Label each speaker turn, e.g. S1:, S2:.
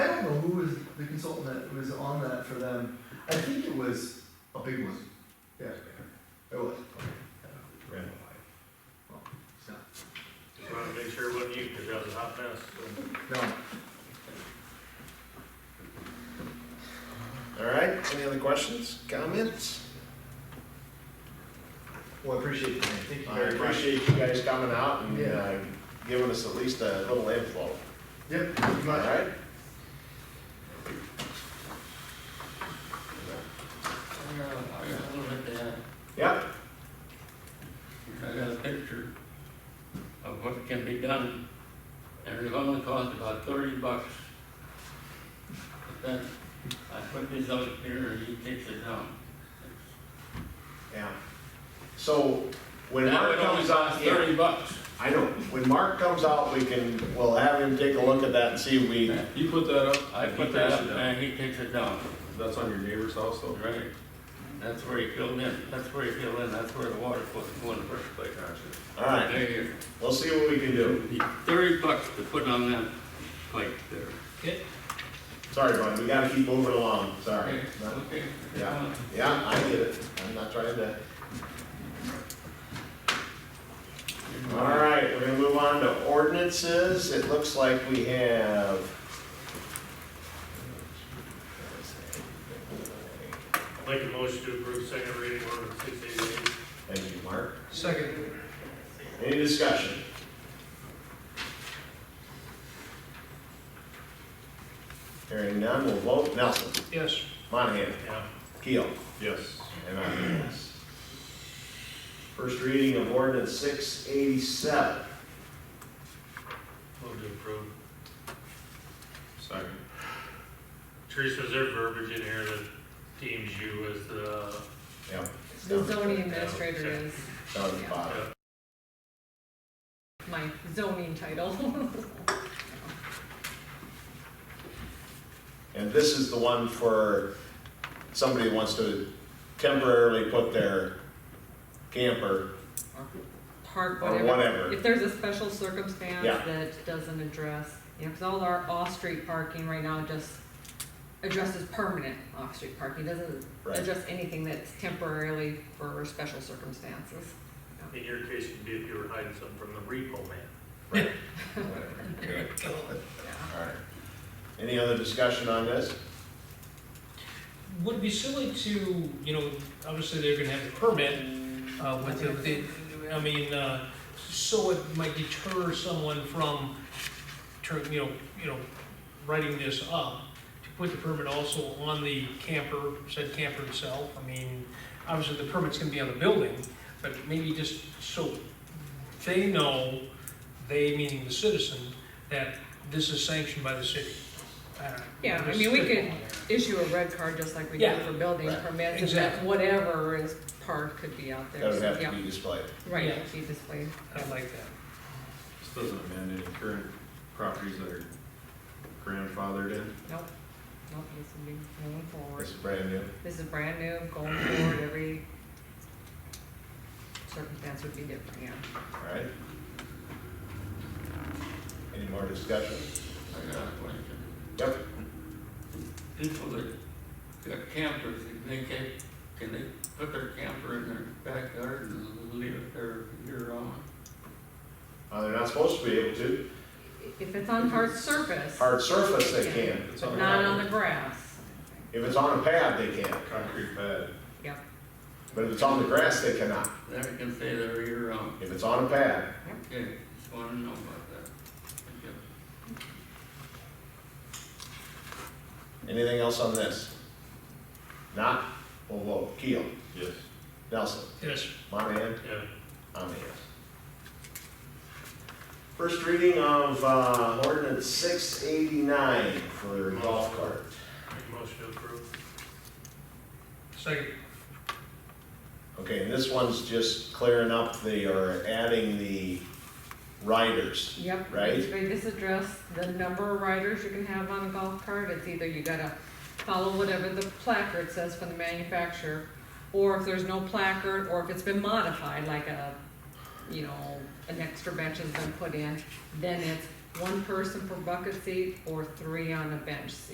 S1: that was on that for them. I think it was a big one. Yeah, it was.
S2: Red
S1: So,
S3: Just wanted to make sure it wasn't you, because that was a hot mess. so.
S1: No,
S2: All right, any other questions, comments?
S1: well, I appreciate it. Thank you
S2: I
S1: very much.
S2: appreciate you guys coming out and
S1: Yeah.
S2: uh, giving us at least a little info,
S1: Yep, thank you
S2: all
S1: much.
S2: right?
S4: I got, I got a little bit down.
S2: Yeah,
S4: I got a picture of what can be done, and it only cost about thirty bucks. But then, I put this out here, and he takes it down.
S2: yeah. So when
S4: That
S2: Mark
S4: would only
S2: comes
S4: cost
S2: out, yeah,
S4: thirty bucks.
S2: I know, when Mark comes out, we can, we'll have him take a look at that and see if we,
S5: You put that up?
S4: I
S5: He
S4: put that
S5: passed
S4: up,
S5: it down.
S4: and he takes it down,
S5: That's on your neighbor's house though?
S4: right? That's where he filled in, that's where he filled in, that's where the water was going in the first place.
S2: all right,
S4: There you
S2: we'll see what we can do.
S4: go. Thirty bucks to put on that plate there.
S2: Sorry, bud, we gotta keep moving along, sorry. No.
S4: Okay.
S2: Yeah, yeah, I get it, I'm not trying to. All right, we're gonna move on to ordinances, it looks like we have.
S3: I'd Like a motion to approve second reading order six eighty-eight.
S2: Thank you, Mark.
S1: Second.
S2: Any discussion? Hearing none, we'll vote. Nelson,
S1: Yes.
S2: Monahan,
S3: Yeah.
S2: Keel,
S5: Yes.
S2: and I vote yes. First reading of ordinance six eighty-seven.
S3: Move to approve.
S5: Second.
S3: Teresa, is there verbiage in here that deems you as the,
S2: Yep,
S6: The zoning administrator is
S2: down at the bottom.
S6: my zoning title.
S2: And this is the one for somebody who wants to temporarily put their camper,
S6: Park,
S2: Or
S6: whatever.
S2: whatever.
S6: If there's a special circumstance
S2: Yeah.
S6: that doesn't address, you know, because all our off-street parking right now just addresses permanent off-street parking, doesn't
S2: Right.
S6: address anything that's temporarily for special circumstances.
S3: in your case, it'd be if you were hiding something from the repo man?
S2: whatever.
S6: Yeah.
S2: All right. Any other discussion on this?
S7: Would it be silly to, you know, obviously they're gonna have the permit, uh, with it, they- I mean, uh, so it might deter someone from, turn, you know, you know, writing this up, to put the permit also on the camper, said camper itself, I mean, obviously the permit's gonna be on the building, but maybe just so they know, they meaning the citizen, that this is sanctioned by the city. Uh, I don't know.
S6: Yeah, I
S7: Just
S6: mean, we
S7: spitballing
S6: could
S7: there.
S6: issue a red card just like we do
S7: Yeah.
S6: for building
S2: Right.
S6: permits, if that's
S7: Exactly.
S6: whatever is parked could be out there.
S2: That would
S6: so,
S2: have to
S6: yeah.
S2: be displayed.
S6: Right,
S7: Yeah.
S6: it'd be displayed.
S7: I like that.
S5: This doesn't amend any current properties that are grandfathered in.
S6: Nope, nope, this would be going forward.
S2: This is brand new.
S6: This is brand new, going forward, every circumstance would be different, yeah.
S2: All right. Any more discussion?
S4: I got a question.
S2: Yep.
S4: people that got campers, can they can, can they put their camper in their backyard and leave it there year round?
S2: Uh, they're not supposed to be able to.
S6: If it's on hard surface,
S2: Hard surface, they can.
S5: It's
S6: but
S5: on
S6: not on
S5: a
S6: the grass,
S2: If it's on a pad, they can.
S5: concrete pad.
S6: yeah,
S2: But if it's on the grass, they cannot.
S4: Then we can say they're year round.
S2: If it's on a pad.
S4: Okay, just wanna know about that. Thank you.
S2: Anything else on this? Not? We'll vote. Keel,
S5: Yes.
S2: Nelson,
S7: Yes.
S2: Monahan,
S3: Yeah.
S2: I'm a yes. First reading of uh, ordinance six eighty-nine for golf cart.
S3: Make a motion to approve.
S7: Second.
S2: Okay, and this one's just clearing up the, or adding the riders.
S6: yep.
S2: Right.
S6: This address, the number of riders you can have on a golf cart, it's either you gotta follow whatever the placard says from the manufacturer, or if there's no placard, or if it's been modified, like a, you know, an extra bench has been put in, then it's one person per bucket seat or three on a bench seat.